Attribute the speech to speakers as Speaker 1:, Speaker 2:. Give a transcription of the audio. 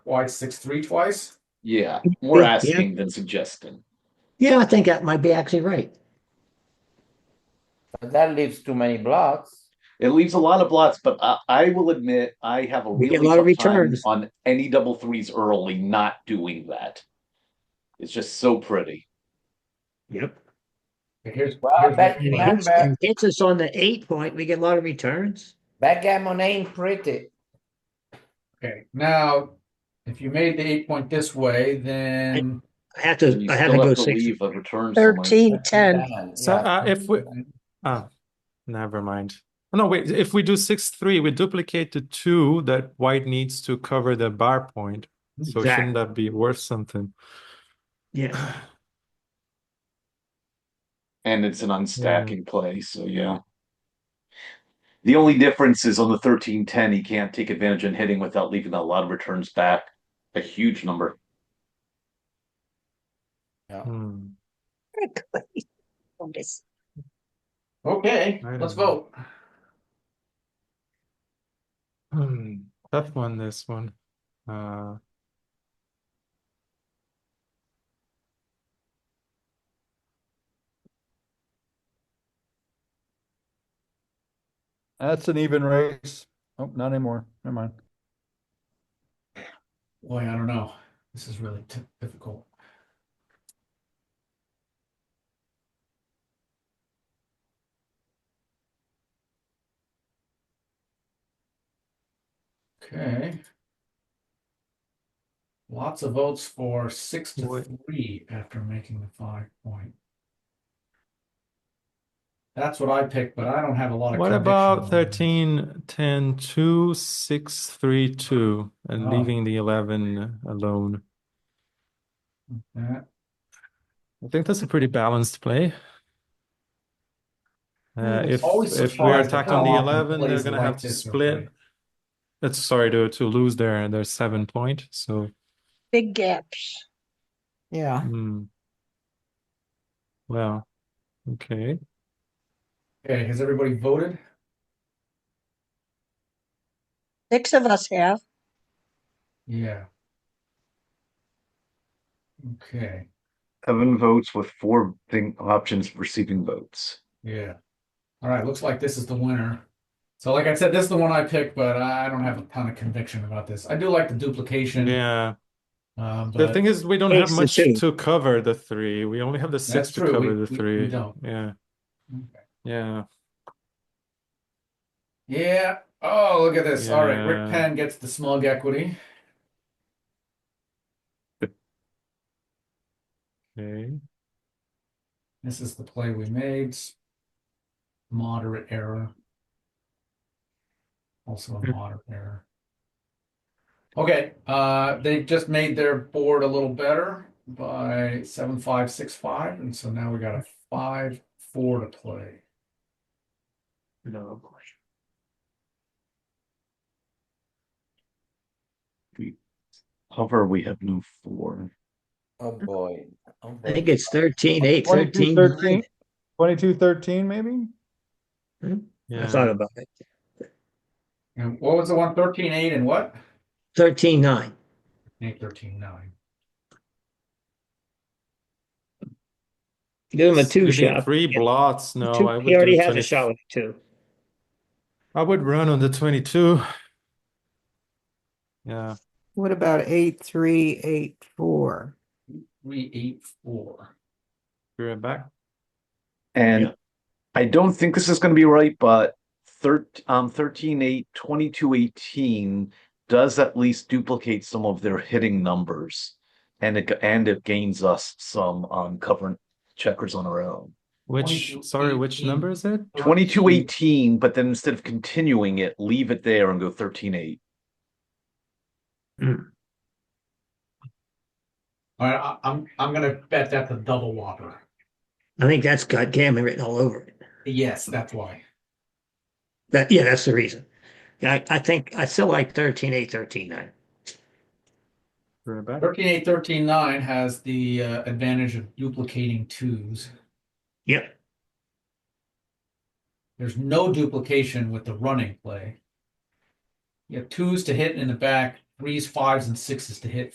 Speaker 1: why six three twice?
Speaker 2: Yeah, more
Speaker 3: Yeah.
Speaker 2: asking than suggesting.
Speaker 3: Yeah, I think that might be actually right.
Speaker 4: But that leaves too many blocks.
Speaker 2: It leaves a lot of blots, but I, I will admit I have a
Speaker 3: We
Speaker 2: really
Speaker 3: get a lot of
Speaker 2: tough time
Speaker 3: returns.
Speaker 2: on any double threes early. Not doing that. It's just so pretty.
Speaker 3: Yep.
Speaker 1: Here's,
Speaker 4: Well,
Speaker 1: here's
Speaker 4: back,
Speaker 1: the-
Speaker 4: back, back,
Speaker 3: Hits us on the eight point, we get a lot of returns.
Speaker 4: backgammon ain't pretty.
Speaker 1: okay, now, if you made the eight point this way, then.
Speaker 3: I have
Speaker 2: And
Speaker 3: to,
Speaker 2: you
Speaker 3: I have
Speaker 2: still
Speaker 3: to go
Speaker 2: have to
Speaker 3: six.
Speaker 2: leave a return somewhere.
Speaker 5: Thirteen, ten.
Speaker 6: So
Speaker 4: Yeah.
Speaker 6: uh, if we, ah, never mind. Oh, No, wait, if we do six, three, we duplicate the two that white needs to cover the bar point. So
Speaker 3: Exact-
Speaker 6: shouldn't that be worth something?
Speaker 3: Yeah,
Speaker 2: And it's an unstacking play, so yeah. The only difference is on the thirteen ten, he can't take advantage in hitting without leaving a lot of returns back. A huge number.
Speaker 6: Hmm.
Speaker 5: Notice.
Speaker 1: Okay,
Speaker 6: I
Speaker 1: let's
Speaker 6: don't know.
Speaker 1: vote.
Speaker 6: Hmm, Tough one, this one. Uh,
Speaker 7: That's an even race. Oh, not anymore. Never mind.
Speaker 1: Boy, I don't know. This is really t- difficult. Okay. Lots of votes for six to
Speaker 6: Wait.
Speaker 1: three after making the five point. That's what I picked, but I don't have a lot of.
Speaker 6: what
Speaker 1: conviction
Speaker 6: about
Speaker 1: on that.
Speaker 6: 13, 10, 2, 6, 3, 2, and
Speaker 1: Ah.
Speaker 6: leaving the 11 alone?
Speaker 1: Yeah.
Speaker 6: I think that's a pretty balanced play. Uh,
Speaker 1: it's
Speaker 6: if
Speaker 1: always
Speaker 6: if we
Speaker 1: surprised
Speaker 6: are
Speaker 1: at
Speaker 6: attacked
Speaker 1: how
Speaker 6: on the
Speaker 1: often
Speaker 6: 11, they're
Speaker 1: plays
Speaker 6: gonna
Speaker 1: like
Speaker 6: have to
Speaker 1: this are
Speaker 6: split.
Speaker 1: played.
Speaker 6: That's sorry to to lose their their seven point. So
Speaker 5: Big gaps.
Speaker 8: Yeah,
Speaker 6: hmm. well, okay.
Speaker 1: Okay, has everybody voted?
Speaker 5: Six of us have.
Speaker 1: Yeah. Okay,
Speaker 2: Seven votes with four thing options receiving votes.
Speaker 1: yeah. All right, looks like this is the winner. So like I said, this is the one I picked, but I don't have a ton of conviction about this. I do like the duplication.
Speaker 6: Yeah.
Speaker 1: Uh,
Speaker 6: The
Speaker 1: but
Speaker 6: thing is, we don't have
Speaker 3: Ace to
Speaker 6: much
Speaker 3: two.
Speaker 6: to cover the three. We only have the six
Speaker 1: That's
Speaker 6: to
Speaker 1: true, we-
Speaker 6: cover the
Speaker 1: we- we
Speaker 6: three.
Speaker 1: don't.
Speaker 6: Yeah.
Speaker 1: Okay.
Speaker 6: Yeah.
Speaker 1: yeah, oh, look at this. All right, Rick
Speaker 6: Yeah.
Speaker 1: Penn gets the smug equity.
Speaker 6: Okay.
Speaker 1: This is the play we made. Moderate error. Also a
Speaker 6: Hmm.
Speaker 1: moderate error. Okay, uh, they just made their board a little better by seven, five, six, five, and so now we got a five, four to play.
Speaker 2: No. We hover, we have no four.
Speaker 4: Oh, boy. Oh,
Speaker 3: I think
Speaker 4: boy.
Speaker 3: it's thirteen, eight, thirteen.
Speaker 7: 22, 13,
Speaker 3: nine.
Speaker 7: 22, 13, maybe?
Speaker 3: I
Speaker 6: Yeah.
Speaker 3: thought about it.
Speaker 1: And what was the one, thirteen, eight, and what?
Speaker 3: Thirteen, nine.
Speaker 1: Eight, thirteen, nine.
Speaker 3: Give him a two
Speaker 6: Leaving
Speaker 3: shot.
Speaker 6: Three
Speaker 3: Yeah.
Speaker 6: blots. No,
Speaker 3: Two-
Speaker 6: Oh, I would
Speaker 3: He already
Speaker 6: do
Speaker 3: has
Speaker 6: 20
Speaker 3: a shot with a two.
Speaker 6: I would run on the 22. Yeah.
Speaker 8: what about eight, three, eight, four?
Speaker 1: Three, eight, four.
Speaker 6: We're back.
Speaker 2: And
Speaker 3: Yeah.
Speaker 2: I don't think this is going to be right, but thir- um, 13 8, 22 18 does at least duplicate some of their hitting numbers. And it, g- and it gains us some um, covering checkers on our own.
Speaker 6: Which,
Speaker 1: 22,
Speaker 6: sorry, which
Speaker 1: 18.
Speaker 6: number is it?
Speaker 2: 22 18, but then instead of continuing it, leave it there and go 13 8.
Speaker 1: All right, I, I'm, I'm gonna bet that's a double whopper.
Speaker 3: I think that's got gammon written all over it.
Speaker 1: Yes, that's why.
Speaker 3: That, yeah, that's the reason. I, I think, I still like thirteen, eight, thirteen, nine.
Speaker 6: We're back.
Speaker 1: Thirteen, eight, thirteen, nine has the uh, advantage of duplicating twos.
Speaker 3: Yep,
Speaker 1: There's no duplication with the running play. You have twos to hit in the back threes, fives, and sixes to hit